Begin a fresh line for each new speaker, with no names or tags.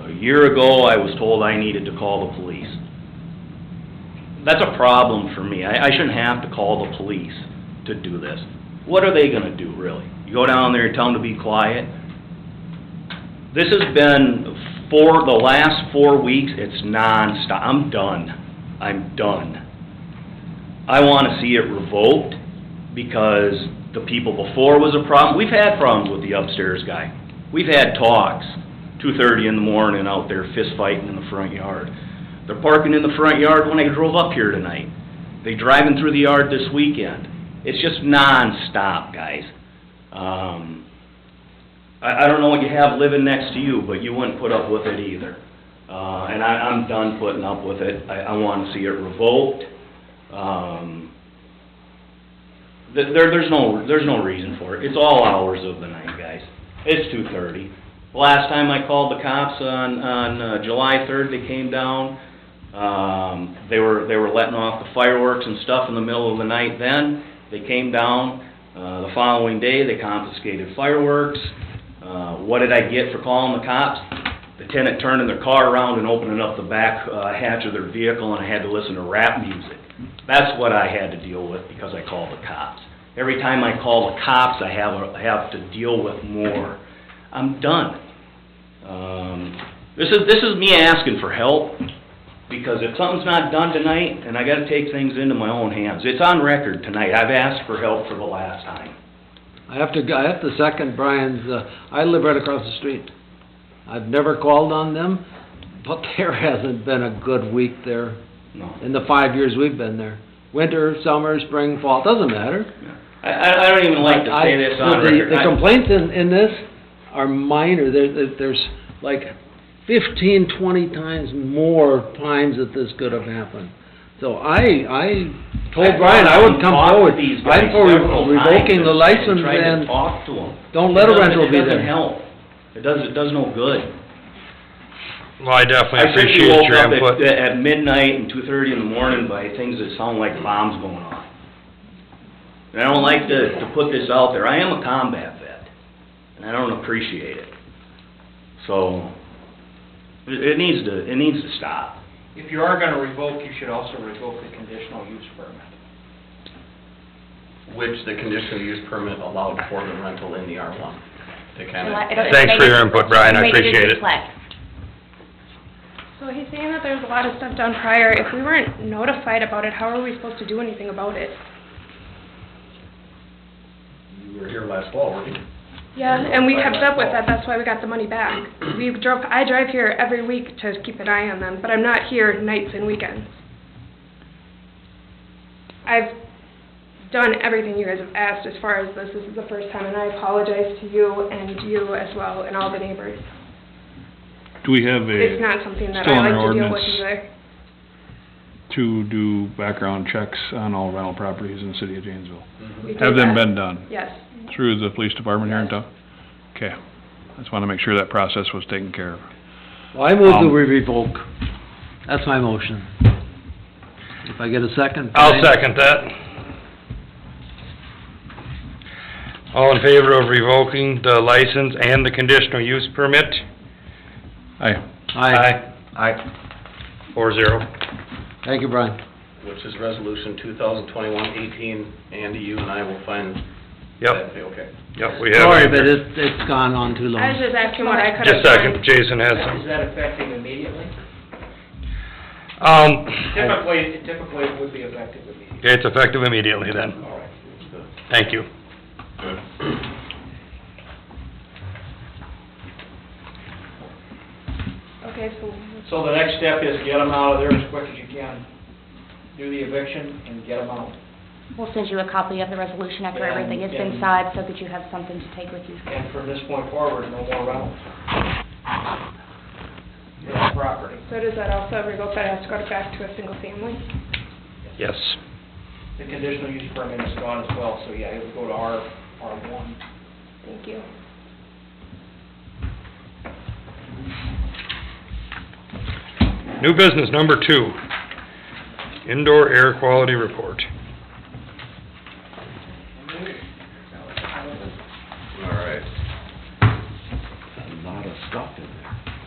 A year ago, I was told I needed to call the police. That's a problem for me. I, I shouldn't have to call the police to do this. What are they gonna do, really? You go down there, tell them to be quiet? This has been for the last four weeks, it's nonstop. I'm done. I'm done. I wanna see it revoked because the people before was a problem. We've had problems with the upstairs guy. We've had talks, two thirty in the morning out there fist fighting in the front yard. They're parking in the front yard when I drove up here tonight. They driving through the yard this weekend. It's just nonstop, guys. Um, I, I don't know what you have living next to you, but you wouldn't put up with it either. Uh, and I, I'm done putting up with it. I, I wanna see it revoked. Um, th- there, there's no, there's no reason for it. It's all hours of the night, guys. It's two thirty. Last time I called the cops on, on uh, July third, they came down. Um, they were, they were letting off the fireworks and stuff in the middle of the night then. They came down, uh, the following day, they confiscated fireworks. Uh, what did I get for calling the cops? The tenant turning their car around and opening up the back uh, hatch of their vehicle, and I had to listen to rap music. That's what I had to deal with because I called the cops. Every time I call the cops, I have, a- I have to deal with more. I'm done. Um, This is, this is me asking for help, because if something's not done tonight, then I gotta take things into my own hands. It's on record tonight, I've asked for help for the last time.
I have to, I have to second Brian's, uh, I live right across the street. I've never called on them, but there hasn't been a good week there
No.
in the five years we've been there. Winter, summer, spring, fall, doesn't matter.
I, I I don't even like to say this on
I- the-
record.
The
I-
complaints in, in this are minor, there, there- there's like fifteen, twenty times more times that this could have happened. So I, I told
I've
Brian I would come
talked to
forward,
these guys
I'm for
several
revoking
times
the
and
license
tried to
and
talk to 'em.
don't let
It
a
doesn't-
rental be
It doesn't
there.
help. It does, it does no good.
Well, I definitely
think we
appreciate your
woke up
input.
at- At midnight and two-thirty in the morning by things that sound like bombs going off. And I don't like to, to put this out there, I am a combat vet, and I don't appreciate it. So, it, it needs to, it needs to stop.
If you are gonna revoke, you should also revoke the conditional use permit.
which the conditional use permit allowed for the rental in the R1. To kind
Well, I-
of,
it'll-
Thanks
it'll
for
make
your input, Brian. I
it'll make
appreciate it.
reflect.
So he's saying that there's a lot of stuff done prior. If we weren't notified about it, how are we supposed to do anything about it?
you were here last fall, weren't you?
Yeah, and we kept up with that, that's why we got the money back. We drove, I drive here every week to keep an eye on them, but I'm not here nights and weekends. I've done everything you guys have asked as far as this, this is the first time, and I apologize to you and you as well and all the neighbors.
Do we have
It's
a,
not something that
still
I
in
like
our
to deal with
ordinance.
either.
to do background checks on all rental properties in the city of Janesville?
We did
Have them
that.
been done
Yes.
through the police department here in town? Okay, I just wanna make sure that process was taken care of.
Well, I move that
Um,
we revoke. That's my motion. If I get a second?
I'll
fine.
second that. All in favor of revoking the license and the conditional use permit?
Aye,
Aye.
Aye. Four zero.
Thank you, Brian.
Which is resolution 2021-18, Andy, you and I will find.
Yep,
that- Okay.
yep, we have.
Sorry,
it.
but it's, it's gone on too long.
I was just asking what I could have done.
Just a second, Jason has
Is
some.
that effective immediately?
Um,
Typically, typically it would be effective immediately.
it's effective immediately then.
All right.
Thank you.
Okay, so
So the next step is get them out of there as quick as you can. Do the eviction and get them out.
We'll send you a copy of the resolution after
Yeah,
everything is
and-
inside, so that you have something to take with you.
And from this point forward, no more rentals. Yeah, property.
So does that also revoke that it has to go back to a single family?
Yes.
The conditional use permit is gone as well, so yeah, it would go to R, R1.
Thank you.
New business number two, indoor air quality report.